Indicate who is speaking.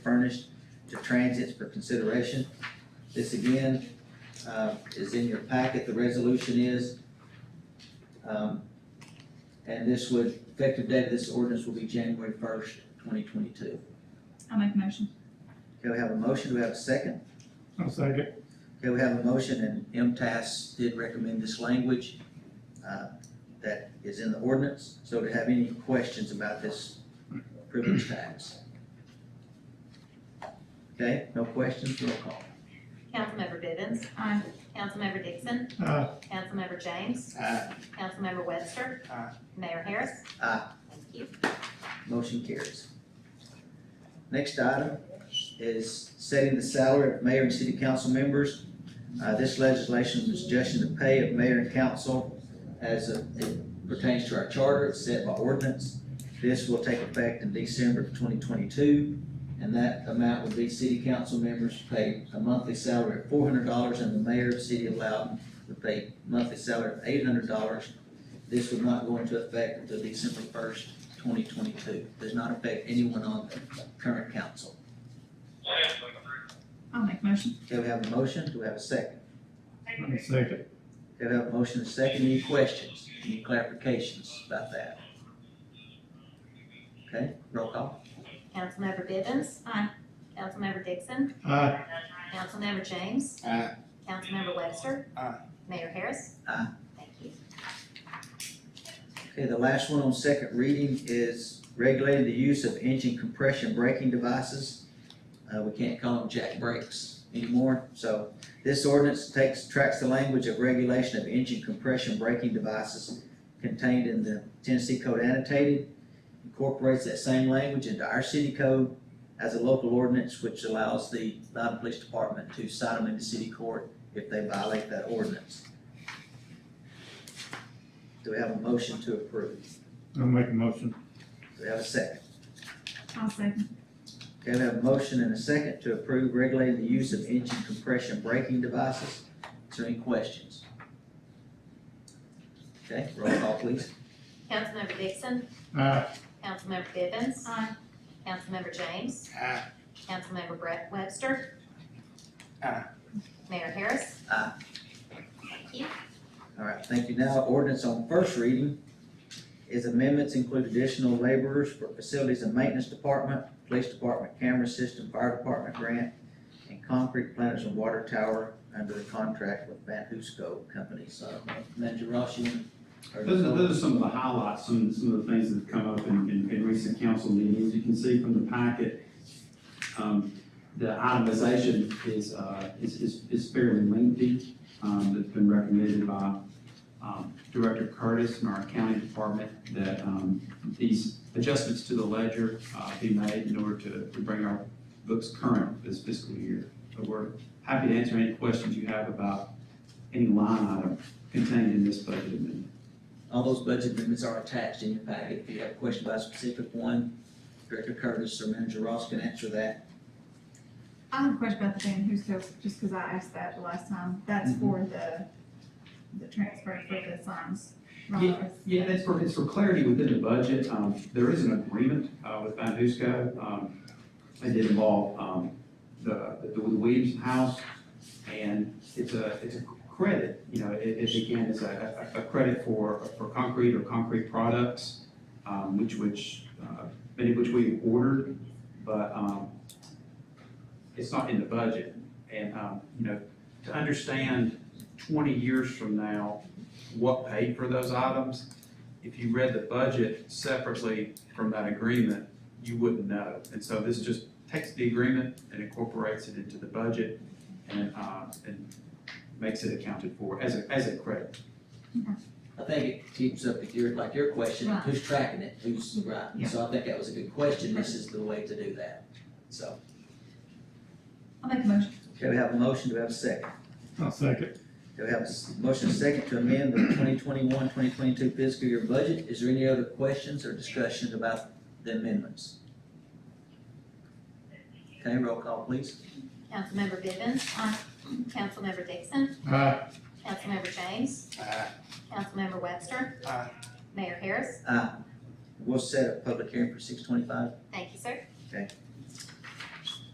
Speaker 1: transits for consideration. This again, uh, is in your packet, the resolution is. Um, and this would, effective date of this ordinance will be January first, twenty twenty-two.
Speaker 2: I'll make a motion.
Speaker 1: Okay, we have a motion, do we have a second?
Speaker 3: I'll second.
Speaker 1: Okay, we have a motion, and MTS did recommend this language uh, that is in the ordinance. So to have any questions about this privilege tax? Okay, no questions, roll call.
Speaker 4: Councilmember Vivens.
Speaker 2: Aye.
Speaker 4: Councilmember Dixon.
Speaker 3: Aye.
Speaker 4: Councilmember James.
Speaker 1: Aye.
Speaker 4: Councilmember Webster.
Speaker 3: Aye.
Speaker 4: Mayor Harris.
Speaker 1: Aye.
Speaker 4: Thank you.
Speaker 1: Motion carries. Next item is setting the salary of mayor and city council members. Uh, This legislation is adjusting the pay of mayor and council as it pertains to our charter, it's set by ordinance. This will take effect in December of twenty twenty-two, and that amount would be city council members paid a monthly salary of four hundred dollars, and the mayor of the city of Loudon would pay monthly salary of eight hundred dollars. This would not go into effect until December first, twenty twenty-two, does not affect anyone on the current council.
Speaker 2: I'll make a motion.
Speaker 1: Okay, we have a motion, do we have a second?
Speaker 3: I'll second.
Speaker 1: Okay, we have a motion and a second, any questions, any clarifications about that? Okay, roll call.
Speaker 4: Councilmember Vivens.
Speaker 2: Aye.
Speaker 4: Councilmember Dixon.
Speaker 3: Aye.
Speaker 4: Councilmember James.
Speaker 1: Aye.
Speaker 4: Councilmember Webster.
Speaker 3: Aye.
Speaker 4: Mayor Harris.
Speaker 1: Aye.
Speaker 4: Thank you.
Speaker 1: Okay, the last one on second reading is regulating the use of engine compression braking devices. Uh, we can't call them jack brakes anymore, so this ordinance takes, tracks the language of regulation of engine compression braking devices contained in the Tennessee Code annotated, incorporates that same language into our city code as a local ordinance, which allows the Loudoun Police Department to cite them into city court if they violate that ordinance. Do we have a motion to approve?
Speaker 3: I'll make a motion.
Speaker 1: Do we have a second?
Speaker 2: I'll second.
Speaker 1: Okay, we have a motion and a second to approve regulating the use of engine compression braking devices. Is there any questions? Okay, roll call please.
Speaker 4: Councilmember Dixon.
Speaker 3: Aye.
Speaker 4: Councilmember Vivens.
Speaker 2: Aye.
Speaker 4: Councilmember James.
Speaker 3: Aye.
Speaker 4: Councilmember Brett Webster.
Speaker 3: Aye.
Speaker 4: Mayor Harris.
Speaker 1: Aye.
Speaker 4: Thank you.
Speaker 1: All right, thank you. Now, ordinance on first reading is amendments include additional laborers for facilities and maintenance department, police department, camera system, fire department grant, and concrete planters and water tower under the contract with Van Husco Company. So, Manager Ross, you want?
Speaker 5: Those are, those are some of the highlights, some, some of the things that have come up in, in, in recent council meetings. You can see from the packet, um, the itemization is, uh, is, is, is fairly lengthy, um, that's been recommended by, um, Director Curtis and our county department that, um, these adjustments to the ledger, uh, be made in order to, to bring our books current this fiscal year. But we're happy to answer any questions you have about any line item contained in this budget amendment.
Speaker 1: All those budget amendments are attached in your packet. If you have a question about a specific one, Director Curtis or Manager Ross can answer that.
Speaker 2: I have a question about the Van Husco, just because I asked that the last time. That's
Speaker 5: Mm-hmm.
Speaker 2: for the, the transfer for the signs. right?
Speaker 5: Yeah, that's for, it's for clarity within the budget. Um, there is an agreement, uh, with Van Husco. Um, it did involve, um, the, the Williams House. And it's a, it's a credit, you know, it, it again is a, a, a credit for, for concrete or concrete products, um, which, which, uh, many of which we ordered, but, um, it's not in the budget. And, um, you know, to understand twenty years from now, what paid for those items. If you read the budget separately from that agreement, you wouldn't know. And so this just takes the agreement and incorporates it into the budget and, uh, and makes it accounted for as a, as a credit.
Speaker 1: I think it keeps up with your, like your question,
Speaker 2: Right.
Speaker 1: who's tracking it, who's, right?
Speaker 2: Yeah.
Speaker 1: So I think that was a good question. This is the way to do that. So,
Speaker 2: I'll make a motion.
Speaker 1: okay, we have a motion, do we have a second?
Speaker 3: I'll second.
Speaker 1: Do we have a s- motion second to amend the 2021-2022 fiscal year budget? Is there any other questions or discussions about the amendments? Okay, roll call please.
Speaker 4: Councilmember Vivens. Aye. Councilmember Dixon.
Speaker 3: Aye.
Speaker 4: Councilmember James. Councilmember Webster.
Speaker 3: Aye.
Speaker 4: Mayor Harris.
Speaker 1: Aye. We'll set a public hearing for six twenty-five.
Speaker 4: Thank you, sir.